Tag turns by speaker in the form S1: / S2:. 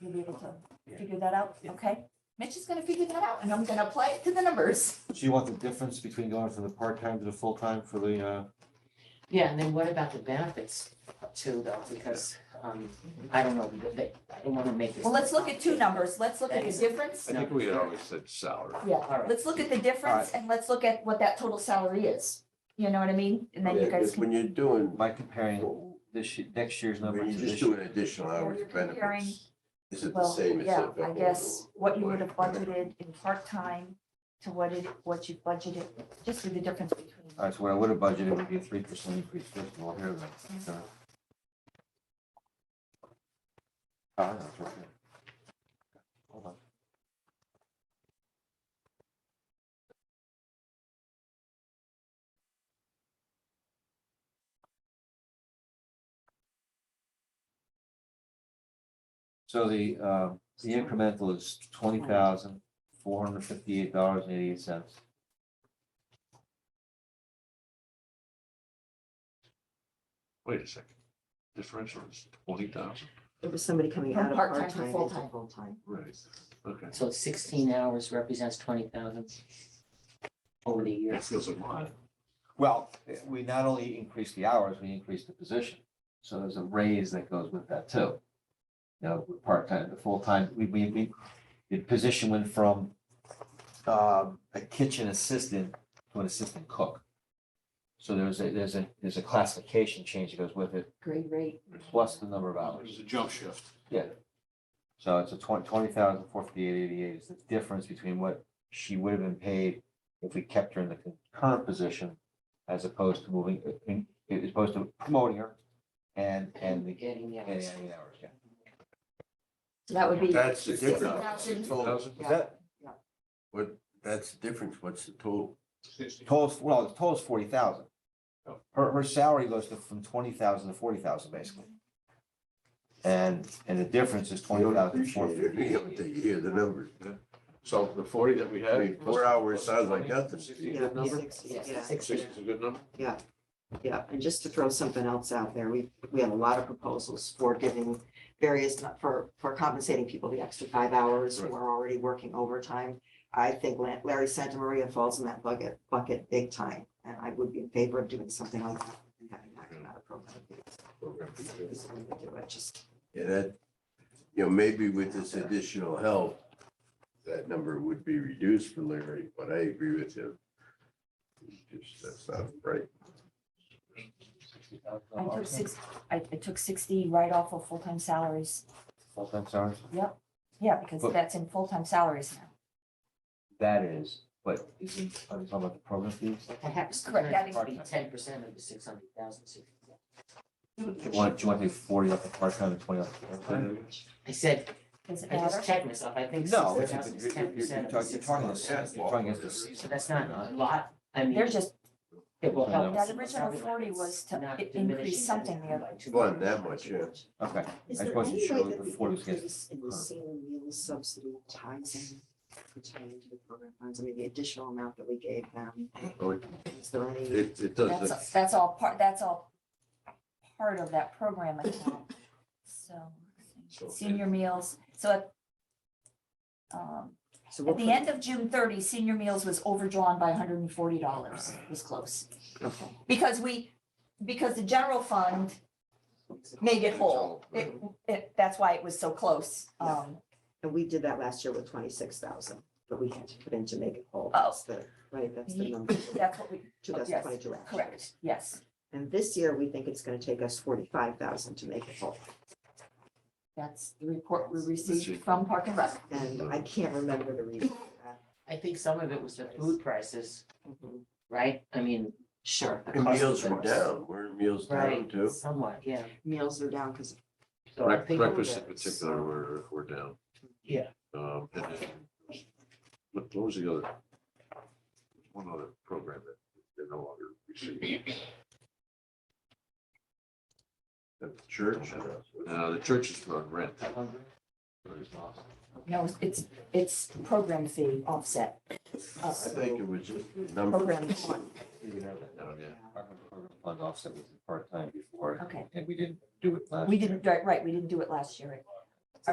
S1: You'll be able to
S2: Yeah.
S1: figure that out,
S2: Yeah.
S1: okay? Mitch is gonna figure that out and I'm gonna apply it to the numbers.
S3: So you want the difference between going from the part-time to the full-time for the, uh,
S2: Yeah, and then what about the benefits too, though, because, um, I don't know, they, I don't wanna make this.
S1: Well, let's look at two numbers. Let's look at the difference.
S4: I think we had always said salary.
S1: Yeah,
S2: All right.
S1: let's look at the difference and let's look at what that total salary is. You know what I mean? And then you
S4: Yeah,
S1: guys
S4: 'cause When
S1: can,
S4: you're doing,
S3: by comparing
S4: when
S3: this, ye- next year's number to
S4: you're just
S3: this year?
S4: doing additional hours
S1: You're
S4: of
S1: comparing-
S4: benefits, is it the
S1: well,
S4: same as?
S1: yeah,
S4: if it
S1: I
S4: was
S1: guess what you would have
S4: like-
S1: budgeted in part-time to what it, what you budgeted, just with the difference between.
S3: All right, so what I would have budgeted would be a three percent increase, first of all, here then. so. Ah, that's right there. Hold on. So the, uh, the incremental is twenty thousand, four hundred fifty-eight dollars and eighty-eight cents.
S4: Wait a second, differential is twenty thousand,
S5: It was somebody coming
S1: From
S5: out of
S1: part-time to
S5: part-time into
S1: full-time.
S5: full-time.
S4: right, okay.
S2: So sixteen hours represents twenty thousand over the
S4: That
S2: years.
S4: feels a lot.
S3: Well, we not only increase the hours, we increase the position. So there's a raise that goes with that too. You know, with part-time to full-time, we, we, we, the position went from um, a kitchen assistant to an assistant cook. So there's a, there's a, there's a classification change that goes with it,
S5: Great rate.
S3: plus the number of
S6: It
S3: hours.
S6: was a jump shift.
S3: So it's a twenty, twenty thousand, four fifty-eight, eighty-eight is the difference between what she would have been paid if we kept her in the current position as opposed to moving, uh, in- as opposed to promoting her and, and the,
S2: Getting the
S3: and
S2: hours.
S3: adding hours, yeah.
S1: So that would be,
S4: That's the difference.
S1: 60,000.
S4: Total-
S3: Is that,
S4: What, that's the difference, what's the total?
S3: total, well, the total's forty thousand.
S6: Oh.
S3: Her, her salary goes to from twenty thousand to forty thousand basically. And, and the difference is
S4: You
S3: twenty
S4: don't
S3: thousand, four
S4: appreciate it until
S3: fifty.
S4: you hear the numbers.
S6: So the forty that we
S4: I
S6: had.
S4: mean, four hours sounds like nothing.
S6: Sixty,
S5: Yeah,
S6: good number?
S5: six-
S2: Yes,
S5: yeah,
S2: six.
S6: Sixty is a good number?
S5: yeah. And just to throw something else out there, we, we had a lot of proposals for giving various, for, for compensating people the extra five hours who
S4: Right.
S5: are already working overtime. I think La- Larry Santa Maria falls in that bucket, bucket big time, and I would be in favor of doing something like that and having that come out of program. Is the way to do it, Just,
S4: Yeah, that, you know, maybe with this additional help, that number would be reduced for Larry, but I agree with him. Just, that's not right.
S1: I took six, I, I took sixty right off of full-time salaries.
S3: Full-time hours,
S1: Yeah, because
S3: But-
S1: that's in full-time salaries now.
S3: that is, but is it, are we talking about the program fees?
S2: Perhaps
S1: Correct, that is-
S2: ten percent of the six hundred thousand.
S3: Do you want, do you want to take forty off the part-time and twenty off the full-time?
S2: I said,
S1: Does it
S2: I
S1: matter?
S2: just checked myself, I think
S3: No,
S2: sixty
S3: it's,
S2: thousand
S3: you're,
S2: is
S3: you're,
S2: ten
S3: you're
S2: percent of
S3: talking,
S2: the
S3: you're
S2: six
S3: talking,
S2: hundred.
S3: this- you're talking against the
S2: So
S3: season.
S2: that's not a lot, I mean.
S1: They're just,
S2: it will help
S1: that
S2: us, but
S1: original
S2: not
S1: 40
S2: really.
S1: was to
S2: Not
S1: i-
S2: diminishing
S1: increase something there.
S2: by too
S4: Well, that much, yeah.
S3: Okay,
S5: Is
S3: I
S5: there
S3: wasn't
S5: any
S3: sure
S5: way
S3: what
S5: that
S3: the
S5: the
S3: Ford was getting
S5: increase in the
S3: from.
S5: same meal subsidy ties in, pertaining to the program funds, I mean, the additional amount that we gave them, is there any?
S4: It,
S1: that's,
S4: it doesn't,
S1: a- that's all part, that's all part of that program account. So,
S4: So-
S1: senior meals, so at um,
S5: so
S1: at
S5: we'll
S1: the
S5: put-
S1: end of June thirty, senior meals was overdrawn by hundred and forty dollars, It was close.
S5: Okay.
S1: Because we, because the general fund made it whole. It, it, that's why it was so close. Um,
S5: And we did that last year with twenty-six thousand, but we had to put in to make it whole.
S1: Oh.
S5: That's the- Right, that's the
S1: Ye-
S5: number,
S1: that's what we,
S5: two thousand twenty-two.
S1: correct, yes,
S5: And this year, we think it's gonna take us forty-five thousand to make it whole.
S1: that's the report we received from Park and Rec.
S5: And I can't remember the reason. for that.
S2: I think some of it was the food prices, right? I mean.
S5: Sure,
S2: the
S4: And
S2: cost of
S4: meals were
S2: things.
S4: down, were meals down
S2: Right,
S4: too?
S2: somewhat, yeah.
S5: meals are down because,
S2: So I think,
S5: breakfast.
S4: in particular were, were down.
S2: yeah,
S4: Um, and then, what what was the other? One other program that they no longer receive. The church, uh, the churches were on rent.
S1: No, it's, it's program fee offset.
S4: I think it was just the number.
S1: Program one,
S4: down, Oh, yeah.
S3: Fund offset was part-time before,
S1: okay.
S3: and we didn't do it last
S1: We
S3: year.
S1: didn't, right, right, we didn't do it last year.